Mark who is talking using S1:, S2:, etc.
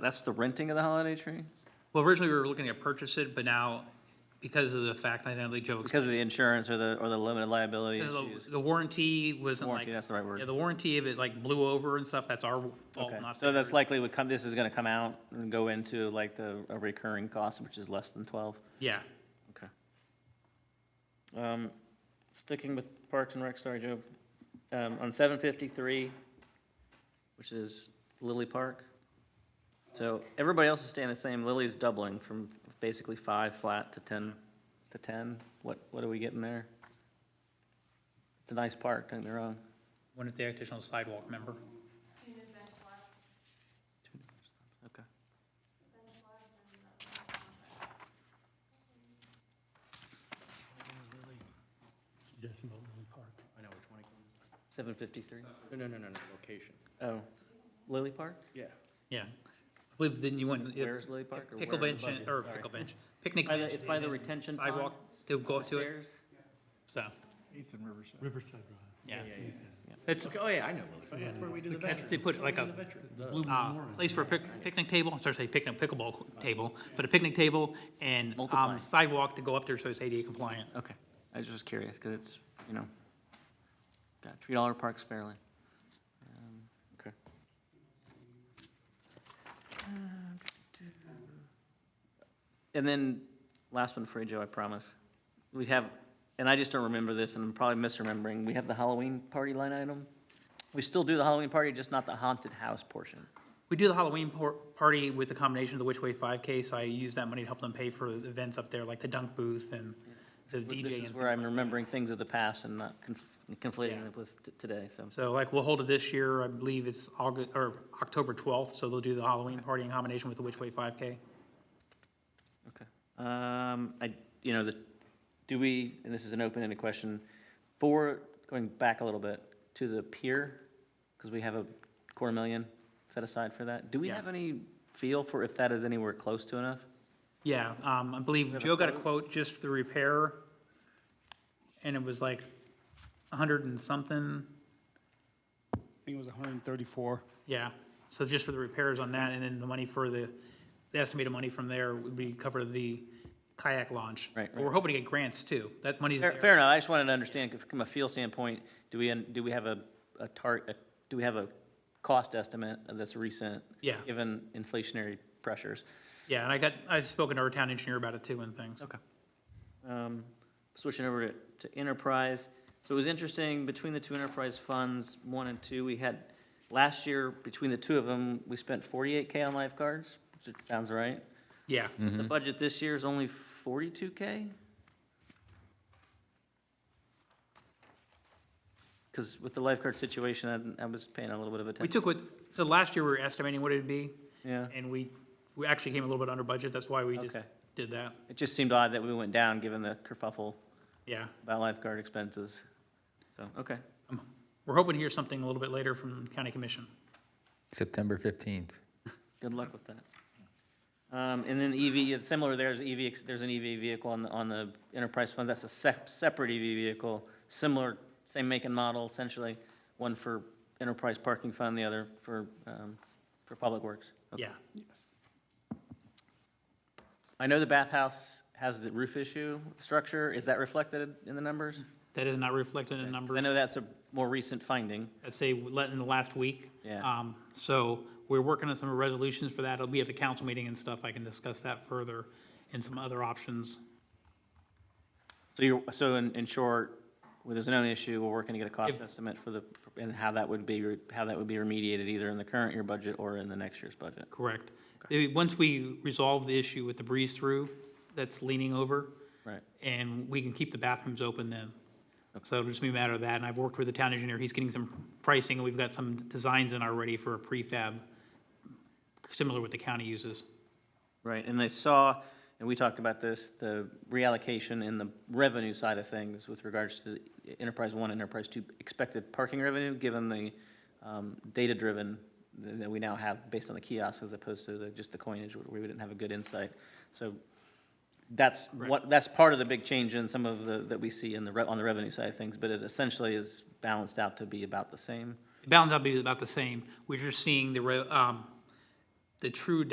S1: That's the renting of the holiday tree?
S2: Well, originally we were looking at purchase it, but now because of the fact, I think Joe,
S1: Because of the insurance or the, or the limited liability
S2: because
S1: issues?
S2: the- the warranty wasn't like.
S1: Warranty, that's the right word.
S2: Yeah, the warranty of it like blew over and stuff, that's our fault,
S1: Okay,
S2: not.
S1: so that's
S2: theirs.
S1: likely would come, this is gonna come out and go into like the, a recurring cost, which is less than twelve?
S2: Yeah.
S1: Okay. Um, sticking with Parks and Rec, sorry, Joe, um, on seven fifty-three, which is Lily Park. So everybody else is staying the same, Lily's doubling from basically five flat to ten, to ten, what, what are we getting there? It's a nice park, don't get me wrong.
S2: One at the additional sidewalk, remember?
S1: Okay.
S3: Yes, about Lily Park.
S4: I know which one. it
S1: Seven fifty-three,
S4: is. No, no, no, no, no, location.
S1: oh, Lily Park?
S4: Yeah.
S2: Yeah. I believe then you went.
S1: Where is Lily Park? or where
S2: Pickle
S1: in the
S2: bench, and-
S1: budget?
S2: or
S1: Sorry.
S2: pickle bench, picnic
S1: By the-
S2: bench.
S1: it's by the
S2: and
S1: retention pond
S2: Sidewalk to go up to it,
S1: Upstairs?
S2: so,
S4: Ethan Riverside.
S3: Riverside Drive.
S2: yeah.
S4: Yeah, yeah.
S2: That's,
S4: Okay, Oh, yeah, I know. Lily. That's where we did the
S2: that's,
S4: veteran.
S2: they put like a
S4: The-
S1: Ah,
S2: uh, place for a pic- picnic table, I'm sorry, say picnic, pickleball co- table, but a picnic table and
S1: Multiply.
S2: um, sidewalk to go up there so it's ADA compliant.
S1: Okay, I was just curious, because it's, you know, got to treat all our parks fairly. Um, Okay. And then, last one for you, Joe, I promise. We have, and I just don't remember this, and I'm probably misremembering, we have the Halloween party line item. We still do the Halloween party, just not the haunted house portion.
S2: We do the Halloween por- party with the combination of the Which Way 5K, so I use that money to help them pay for the events up there, like the dunk booth and the DJ.
S1: This
S2: and
S1: is
S2: things
S1: where I'm
S2: like-
S1: remembering things of the past and not conf- conflating
S2: Yeah.
S1: it with t- today, so.
S2: So like, we'll hold it this year, I believe it's August, or October 12th, so they'll do the Halloween party in combination with the Which Way 5K.
S1: Okay. Um, I, you know, the, do we, and this is an open-ended question, for, going back a little bit, to the pier, because we have a quarter million set aside for that, do we
S2: Yeah.
S1: have any feel for if that is anywhere close to enough?
S2: Yeah, um, I believe
S1: have a
S2: Joe got a quote just for the repair, and it was like 100 and something,
S3: I think it was 134.
S2: yeah. So just for the repairs on that, and then the money for the, the estimated money from there would be cover the kayak launch.
S1: Right,
S2: But We're hoping to get grants too, that money's
S1: Fair
S2: there.
S1: fair enough, I just wanted to understand, from a feel standpoint, do we, do we have a, a tar, a- do we have a cost estimate of this recent?
S2: Yeah.
S1: Given inflationary pressures?
S2: Yeah, and I got, I've spoken to our town engineer about it too and things.
S1: Okay. Um, Switching over to to enterprise, so it was interesting, between the two enterprise funds, one and two, we had, last year, between the two of them, we spent forty-eight K on lifeguards, which it sounds right.
S2: Yeah,
S1: The budget this year is only forty-two K? Because with the lifeguard situation, I I was paying a little bit of
S2: we
S1: attention.
S2: took what, so last year we were estimating what it'd be,
S1: Yeah,
S2: and we, we actually came a little bit under budget, that's why we just
S1: Okay.
S2: did that,
S1: it just seemed odd that we went down, given the kerfuffle
S2: yeah.
S1: about lifeguard expenses. So, okay.
S2: We're hoping to hear something a little bit later from county commission.
S5: September 15th.
S1: Good luck with that. Um, and then EV, it's similar, there's EV, ex- there's an EV vehicle on the, on the enterprise fund, that's a sep- separate EV vehicle, similar, same make and model essentially, one for enterprise parking fund, the other for, um, for public works. Okay.
S2: Yeah,
S1: I know the bathhouse has the roof issue, with the structure, is that reflected in the numbers?
S2: that is not reflected in the
S1: 'Cause I
S2: numbers.
S1: know that's a more recent finding,
S2: I'd say let in the last week.
S1: Yeah.
S2: Um, so we're working on some resolutions for that. It'll be at the council meeting and stuff. I can discuss that further and some other options.
S1: so you're, so in, in short, where there's no issue, we're working to get a cost
S2: If-
S1: estimate for the, and how that would be, re- how that would be remediated either in the current year budget or in the next year's budget.
S2: Correct. Eh, Once we resolve the issue with the breeze through that's leaning over,
S1: Right.
S2: and we can keep the bathrooms open then. So it'll just be a matter of that, and I've worked with the town engineer, he's getting some pricing, and we've got some designs in already for a prefab, similar what the county uses.
S1: Right, and I saw, and we talked about this, the reallocation in the revenue side of things with regards to the Enterprise One, Enterprise Two expected parking revenue, given the um, data-driven th- that we now have based on the kiosks as opposed to the, just the coinage, where we didn't have a good insight. So that's what, that's part of the big change in some of the, that we see in the, re- on the revenue side of things, but it essentially is balanced out to be about the same.
S2: Balance out to be about the same, we're just seeing the, re- um, the true